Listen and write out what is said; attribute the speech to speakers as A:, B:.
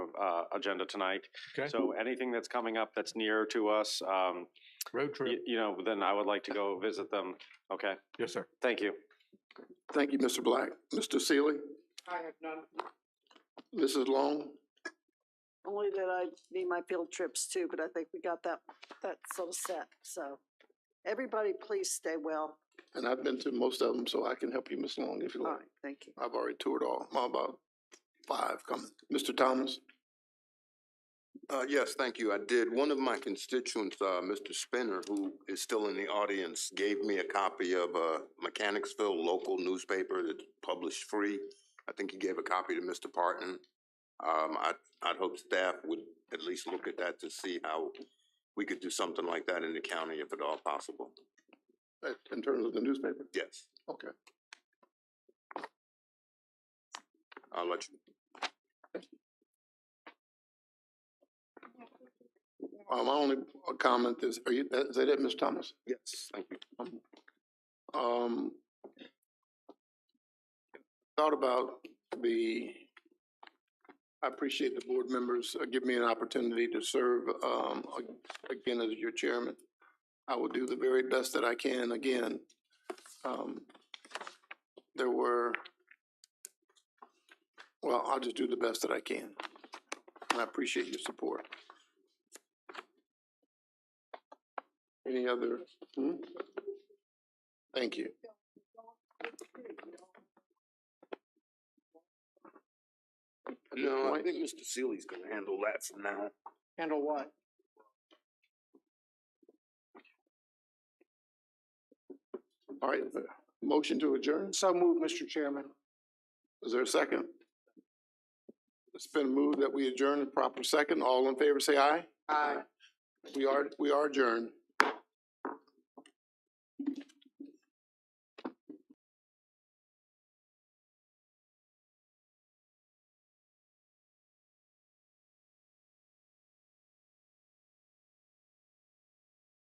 A: uh, agenda tonight.
B: Okay.
A: So anything that's coming up that's near to us, um,
B: Road
A: y-
B: trip.
A: you know, then I would like to go visit them. Okay,
B: Yes, sir.
A: thank you.
C: Thank you, Mr. Black. Mr. Sealy?
D: I have none.
C: Mrs. Long?
E: Only that I need my field trips too, but I think we got that, that sort of set, so. Everybody, please stay well.
C: And I've been to most of them, so I can help you, Ms. Long, if you
E: All
C: like.
E: right, thank you.
C: I've already toured all, I'm about five coming. Mr. Thomas?
F: Uh, yes, thank you. I did. One of my constituents, uh, Mr. Spinner, who is still in the audience, gave me a copy of, uh, Mechanicsville local newspaper that's published free. I think he gave a copy to Mr. Parton. Um, I, I'd hope staff would at least look at that to see how we could do something like that in the county if at all possible.
C: Uh, In terms of the newspaper?
F: Yes,
C: Okay.
F: I'll let you.
C: Uh, my only comment is, are you, is that it, Ms. Thomas?
F: Yes, thank you.
C: Um, thought about the, I appreciate the board members uh, give me an opportunity to serve, um, a- again as your chairman. I will do the very best that I can again. Um, there were, well, I'll just do the best that I can. And I appreciate your support. Any other, hmm? Thank you.
F: No, I think Mr. Seely's gonna handle that from now.
D: Handle what?
C: All right, the motion to adjourn.
D: So move, Mr. Chairman.
C: Is there a second? It's been moved that we adjourn in proper second. All in favor, say aye.
D: Aye.
C: We are, we are adjourned.